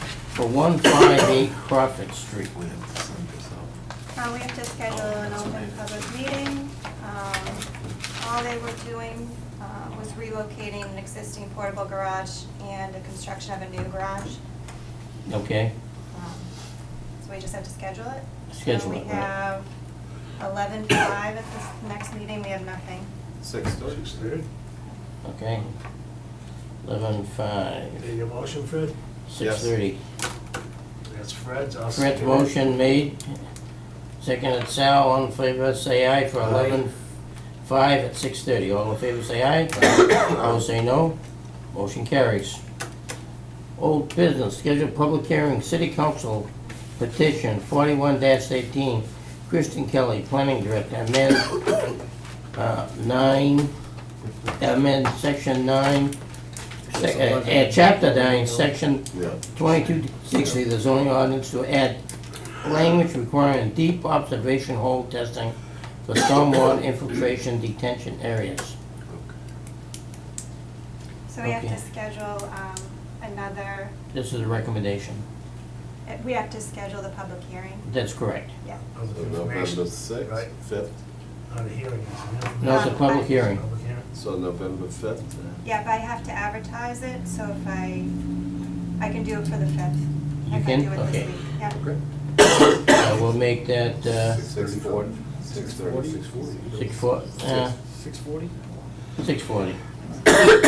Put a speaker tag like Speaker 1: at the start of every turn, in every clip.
Speaker 1: for 158 Crawford Street.
Speaker 2: We have to send this out.
Speaker 3: Uh, we have to schedule an open public meeting. Um, All they were doing uh, was relocating an existing portable garage and the construction of a new garage.
Speaker 1: Okay,
Speaker 3: Um, So we just have to schedule it.
Speaker 1: Schedule it,
Speaker 3: So we
Speaker 1: right.
Speaker 3: have eleven-five at this next meeting, we have nothing.
Speaker 4: Six thirty.
Speaker 5: Six thirty.
Speaker 1: okay. 11:05,
Speaker 5: Need a motion, Fred?
Speaker 1: 6:30.
Speaker 5: That's Fred's. I'll
Speaker 1: Fred's
Speaker 5: second it.
Speaker 1: motion made, seconded Sal, all in favor, say aye for
Speaker 5: Aye.
Speaker 1: 11:05 at 6:30. All in favor, say aye. All say no. Motion carries. Old business, scheduled public hearing, city council petition 41-18, Kristen Kelly, planning director, amend uh, 9, amend section 9, sec- uh, uh, chapter 9, section
Speaker 2: Yeah.
Speaker 1: 2260, the zoning ordinance to add language requiring deep observation hole testing for stormwater infiltration detention areas.
Speaker 3: So we have to
Speaker 1: Okay.
Speaker 3: schedule um, another,
Speaker 1: This is a recommendation.
Speaker 3: uh, we have to schedule the public hearing,
Speaker 1: That's correct.
Speaker 3: yeah.
Speaker 5: Public
Speaker 2: So
Speaker 5: information.
Speaker 2: November
Speaker 5: Right.
Speaker 2: sixth, fifth,
Speaker 5: Not a hearing, it's an
Speaker 1: No, it's a
Speaker 3: Um,
Speaker 1: public
Speaker 3: I-
Speaker 1: hearing.
Speaker 5: Public hearing.
Speaker 2: so November fifth.
Speaker 3: Yeah, but I have to advertise it, so if I, I can do it for the fifth.
Speaker 1: You
Speaker 3: If I
Speaker 1: can?
Speaker 3: do it this
Speaker 1: Okay.
Speaker 3: week, yeah.
Speaker 1: I will make that uh,
Speaker 2: Six forty. Six thirty. Six forty.
Speaker 1: six fo- uh,
Speaker 6: Six forty?
Speaker 1: 6:40.
Speaker 2: Okay.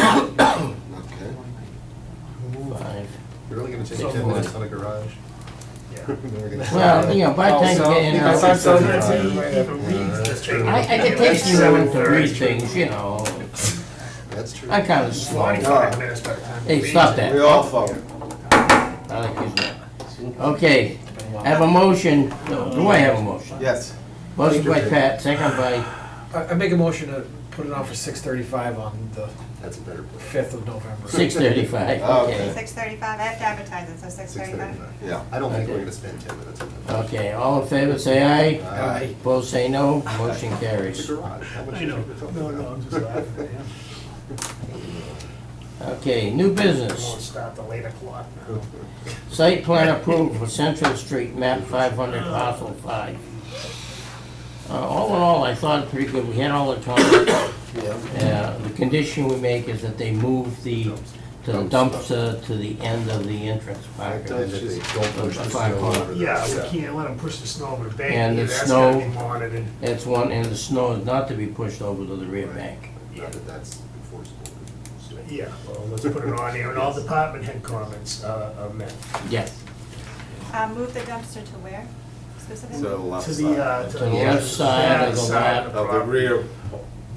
Speaker 1: Five.
Speaker 4: You're really gonna take
Speaker 5: So
Speaker 4: ten
Speaker 5: forth.
Speaker 4: minutes on a garage?
Speaker 5: Yeah.
Speaker 1: Well, you know, by the time you get in,
Speaker 6: By the time
Speaker 1: I'll-
Speaker 6: someone even reads this thing.
Speaker 1: I, I- it takes me a minute to read things, you know.
Speaker 2: That's true.
Speaker 1: I kind of slow.
Speaker 5: Forty-five minutes by the time.
Speaker 1: Hey, stop that.
Speaker 2: We all follow.
Speaker 1: I like his name. Okay, I have a motion, No, do I have a motion?
Speaker 2: Yes.
Speaker 1: Motion by Pat, second by,
Speaker 6: I, I make a motion to put it on for six thirty-five on the
Speaker 2: That's a better plan.
Speaker 6: fifth of November.
Speaker 1: six thirty-five, okay.
Speaker 3: Six thirty-five, I have to advertise it, so six
Speaker 4: Six
Speaker 3: thirty-five.
Speaker 4: thirty-five.
Speaker 2: Yeah, I don't think we're
Speaker 1: Okay. Uh,
Speaker 2: gonna spend ten minutes on that.
Speaker 1: Okay, all in favor, say aye.
Speaker 6: Aye.
Speaker 1: Opposed, say no. Motion
Speaker 2: It's
Speaker 1: carries.
Speaker 2: a garage. How much
Speaker 5: I
Speaker 2: is
Speaker 5: know.
Speaker 2: it?
Speaker 5: No, no, I'm just laughing, yeah.
Speaker 1: Okay, new
Speaker 5: I won't
Speaker 1: business.
Speaker 5: stop till eight o'clock now.
Speaker 1: Site plan approval for Central Street, map five hundred, parcel five. Uh, all in all, I thought pretty good. We had all the time.
Speaker 2: Yeah.
Speaker 1: Uh, The condition we make is that they move the, to the dumpster to the end of the entrance
Speaker 2: I
Speaker 1: parking.
Speaker 2: thought she said don't push the
Speaker 1: Five
Speaker 2: snow over the-
Speaker 5: Yeah, we can't let them push the snow over the bank.
Speaker 1: And
Speaker 5: either.
Speaker 1: the
Speaker 5: That's gotta
Speaker 1: snow-
Speaker 5: be monitored.
Speaker 1: That's one, and the snow is not to be pushed over to the rear bank.
Speaker 2: Not that that's enforceable. so.
Speaker 5: Yeah, well, let's put it on there, and all department head comments uh, are met.
Speaker 1: Yes.
Speaker 3: Uh, move the dumpster to where
Speaker 2: So
Speaker 3: specifically?
Speaker 2: left
Speaker 5: To the,
Speaker 2: side.
Speaker 5: uh, to
Speaker 1: To
Speaker 5: the
Speaker 1: the left side of the
Speaker 5: side
Speaker 1: lot.
Speaker 2: Of the
Speaker 5: property.
Speaker 2: rear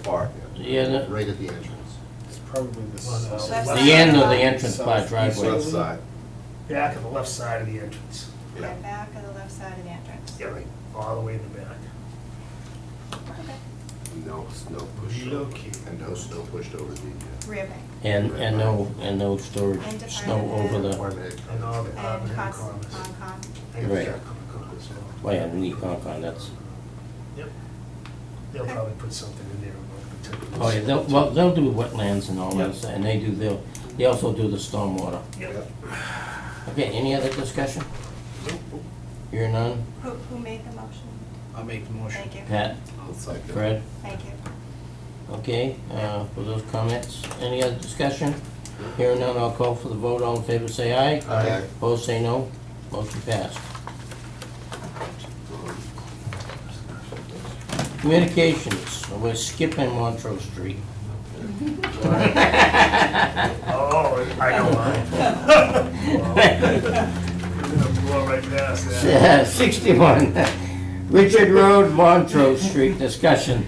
Speaker 2: part.
Speaker 1: Yeah, the-
Speaker 2: Right at the entrance.
Speaker 6: It's probably the
Speaker 5: Well,
Speaker 6: south.
Speaker 3: that's-
Speaker 1: The end of the entrance by driveway.
Speaker 2: Left side.
Speaker 5: Back of the left side of the entrance.
Speaker 3: The
Speaker 2: Yeah.
Speaker 3: back or the left side of the entrance?
Speaker 5: Yeah, right, all the way in the back.
Speaker 2: No snow pushed over.
Speaker 5: Relocate.
Speaker 2: And no snow pushed over the. uh,
Speaker 3: Rear bank
Speaker 1: And, and no, and no storage,
Speaker 3: And to
Speaker 1: snow
Speaker 3: find
Speaker 1: over
Speaker 3: the-
Speaker 1: the,
Speaker 2: Department head
Speaker 5: And all the
Speaker 3: and
Speaker 5: department head
Speaker 3: cost,
Speaker 5: comments.
Speaker 3: Concom.
Speaker 5: And
Speaker 1: Right.
Speaker 5: yeah, Concom as well.
Speaker 1: well, yeah, the Concon, that's,
Speaker 5: Yep. They'll
Speaker 3: Okay.
Speaker 5: probably put something in there about particulars.
Speaker 1: oh, yeah, they'll, well, they'll do wetlands and all that, and they do, they'll, they also do the stormwater.
Speaker 5: Yep.
Speaker 1: Okay, any other discussion? Hear none?
Speaker 3: Who, who made the motion?
Speaker 6: I'll make the motion.
Speaker 3: Thank you,
Speaker 1: Pat,
Speaker 2: looks like that.
Speaker 1: Fred,
Speaker 3: thank you.
Speaker 1: okay, uh, for those comments, any other discussion? Hearing none, I'll call for the vote, all in favor, say aye.
Speaker 2: Aye.
Speaker 1: Opposed, say no, motion passed. Communications, we're skipping Montrose Street.
Speaker 5: Oh, I know mine. We're gonna blow right past that.
Speaker 1: Uh, 61, Richard Road, Montrose Street, discussion.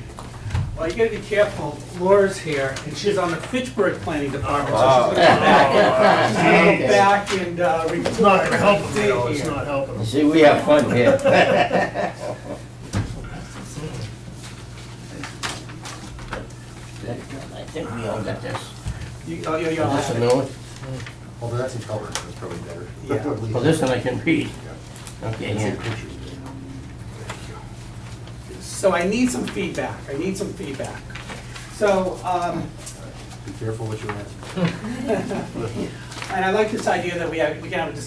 Speaker 7: Well, you gotta be careful, Laura's here, and she's on the Fitchburg Planning Department,
Speaker 2: Oh.
Speaker 7: so she's gonna
Speaker 5: Oh,
Speaker 7: go
Speaker 5: geez.
Speaker 7: back and, uh, re-
Speaker 5: It's not gonna help them,
Speaker 7: Stay
Speaker 5: though, it's
Speaker 7: here.
Speaker 5: not helping them.
Speaker 1: See, we have fun here. I think we all got this.
Speaker 7: you, oh, you're,
Speaker 1: Is this a new one?
Speaker 2: Although that's in color, that's probably better.
Speaker 7: Yeah.
Speaker 1: Well, this one I can read. Okay,
Speaker 2: It's in
Speaker 1: here.
Speaker 2: pictures.
Speaker 7: So I need some feedback, I need some feedback. So, um,
Speaker 2: Be careful what you ask.
Speaker 7: and I like this idea that we have, we can have a discussion